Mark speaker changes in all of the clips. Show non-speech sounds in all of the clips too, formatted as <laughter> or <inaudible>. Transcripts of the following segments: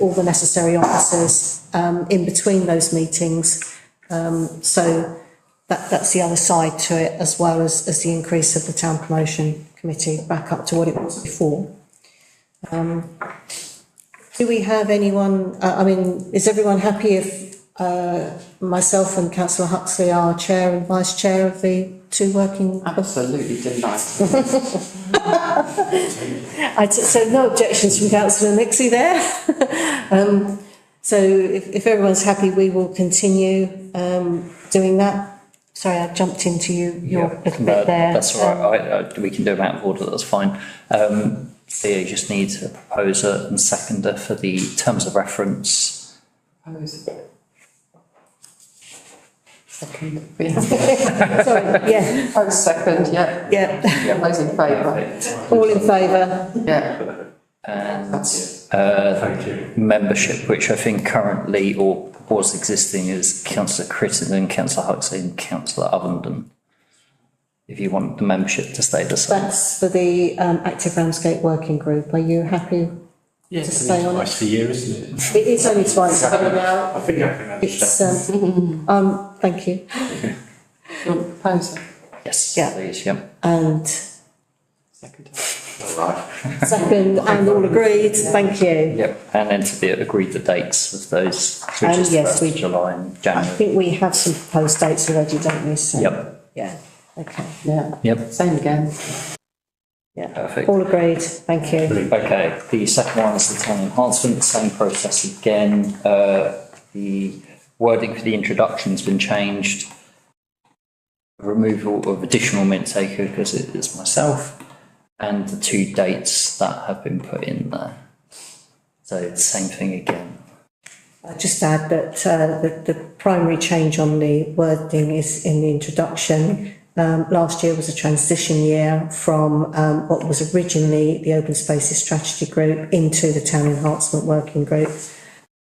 Speaker 1: all the necessary officers um, in between those meetings. Um, so that, that's the other side to it, as well as, as the increase of the town promotion committee back up to what it was before. Um, do we have anyone, uh, I mean, is everyone happy if uh, myself and councillor Huxley are chair and vice chair of the two working?
Speaker 2: Absolutely delighted.
Speaker 1: I t- so no objections from councillor Nixie there. <laughs> um, so if, if everyone's happy, we will continue um, doing that. Sorry, I jumped into you, your little
Speaker 3: No,
Speaker 1: bit there.
Speaker 3: That's all right, I, I, we can do them out of order, that's fine. Um, Theo just needs a proposer and seconder for the terms of reference.
Speaker 2: Second, yeah.
Speaker 1: Um, Sorry, yeah,
Speaker 2: Oh, second, yeah.
Speaker 1: yeah. <laughs>
Speaker 2: All those in favour?
Speaker 1: All in favour?
Speaker 2: Yeah.
Speaker 3: And,
Speaker 2: That's
Speaker 3: uh, membership, which I think currently or was existing is councillor Crittenden, councillor Huxley and councillor Ovenden. If you want the membership to stay the same.
Speaker 1: That's for the um, Active Ramsgate Working Group. Are you happy?
Speaker 4: Yeah,
Speaker 1: to stay on it.
Speaker 4: Twice a year, isn't it?
Speaker 1: It is only twice.
Speaker 2: coming out,
Speaker 4: I think I can
Speaker 1: It's, um, <laughs>
Speaker 4: understand.
Speaker 1: um, thank you.
Speaker 2: your proposer,
Speaker 3: Yes,
Speaker 1: Yeah.
Speaker 3: please, yeah.
Speaker 1: And
Speaker 2: second.
Speaker 1: second, and all agreed, thank you.
Speaker 3: Yep, and then to the, agree the dates of those,
Speaker 1: Um,
Speaker 3: which is
Speaker 1: yes,
Speaker 3: first
Speaker 1: we-
Speaker 3: of July and
Speaker 1: I
Speaker 3: January.
Speaker 1: think we have some proposed dates already, don't we? So-
Speaker 3: Yep,
Speaker 1: Yeah, okay,
Speaker 2: Yeah,
Speaker 3: yep,
Speaker 2: same again.
Speaker 1: yeah.
Speaker 3: perfect.
Speaker 1: All agreed, thank you.
Speaker 3: Okay, the second one is the town enhancement, same process again. Uh, the wording for the introduction's been changed. Removal of additional mint taker because it is myself, and the two dates that have been put in there. So same thing again.
Speaker 1: I'll just add that uh, the, the primary change on the wording is in the introduction. Um, last year was a transition year from um, what was originally the Open Spaces Strategy Group into the Town Enhancement Working Group.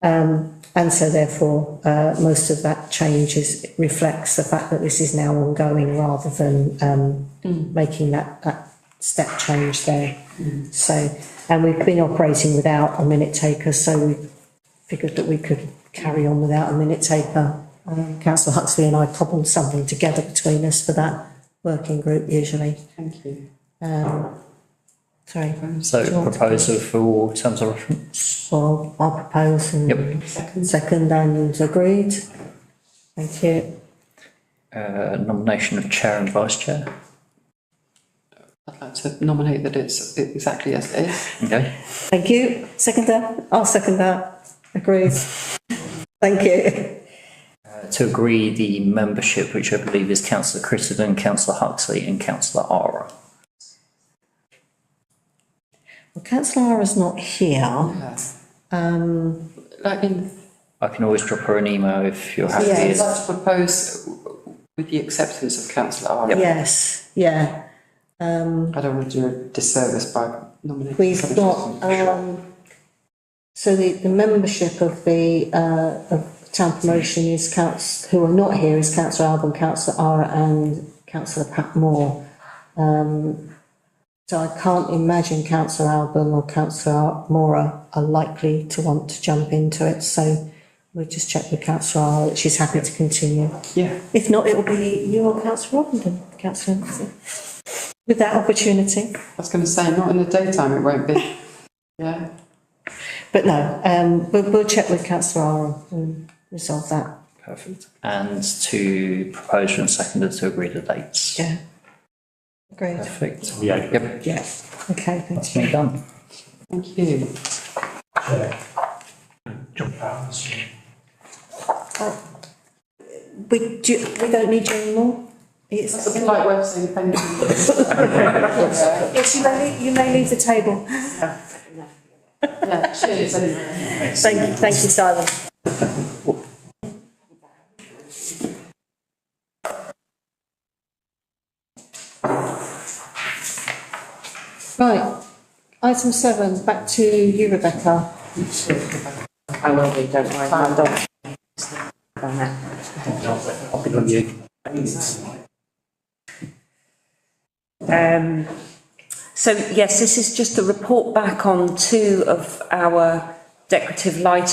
Speaker 1: Um, and so therefore, uh, most of that change is, reflects the fact that this is now ongoing rather than um, making that, that step change there. So, and we've been operating without a minute taker, so we've figured that we could carry on without a minute taker. Um, Councillor Huxley and I cobbled something together between us for that working group usually.
Speaker 2: Thank you.
Speaker 1: Sorry,
Speaker 3: So
Speaker 1: Do you want to-
Speaker 3: proposal for terms of reference?
Speaker 1: so I'll propose and
Speaker 3: Yep.
Speaker 2: Second,
Speaker 1: second and agreed. Thank you.
Speaker 3: Uh, nomination of chair and vice chair.
Speaker 2: I'd like to nominate that it's exactly as it is.
Speaker 3: Okay.
Speaker 1: Thank you. Second that? I'll second that. Agreed. Thank you.
Speaker 3: Uh, to agree the membership, which I believe is councillor Crittenden, councillor Huxley and councillor Ara.
Speaker 1: Well, councillor Ara's not here.
Speaker 2: Yeah. Um, Like in,
Speaker 3: I can always drop her an email if you're happy.
Speaker 2: I'd
Speaker 1: Yes.
Speaker 2: like to propose with the acceptance of councillor Ara.
Speaker 1: Yes, yeah.
Speaker 2: I don't want to do a disservice by nominating.
Speaker 1: We've
Speaker 2: somebody
Speaker 1: got,
Speaker 2: who's not
Speaker 1: um, so the, the membership of the, uh, of town promotion is council, who are not here is councillor Alban, councillor Ara and councillor Pat Moore. Um, so I can't imagine councillor Alban or councillor Mora are likely to want to jump into it, so we'll just check with councillor Ara that she's happy to continue.
Speaker 2: sure. Yeah,
Speaker 1: If not, it'll be you or councillor Robinson, councillor Nixon, with that opportunity.
Speaker 2: I was going to say, not in the daytime, it won't be. Yeah,
Speaker 1: But no, um, we'll, we'll check with councillor Aram and um, resolve that.
Speaker 3: Perfect. And to propose and seconded to agree the dates.
Speaker 1: Yeah. Agreed.
Speaker 3: Perfect.
Speaker 4: Yeah.
Speaker 3: Yep,
Speaker 1: Yeah. Okay, thank
Speaker 3: that's
Speaker 1: you.
Speaker 3: me done.
Speaker 2: thank you.
Speaker 4: Jump out.
Speaker 1: We, do, we don't need you anymore? It's,
Speaker 2: It's a polite way of saying thank
Speaker 1: <laughs>
Speaker 2: you. Yeah,
Speaker 1: yes, you may, you may leave the table.
Speaker 2: yeah, cheers anyway.
Speaker 1: Thank you, thank you, Simon. Right, item seven, back to you, Rebecca.
Speaker 5: I will be, don't worry, my dog. On that.
Speaker 4: I'll be on you.
Speaker 5: Um, so yes, this is just a report back on two of our
Speaker 1: decorative lighting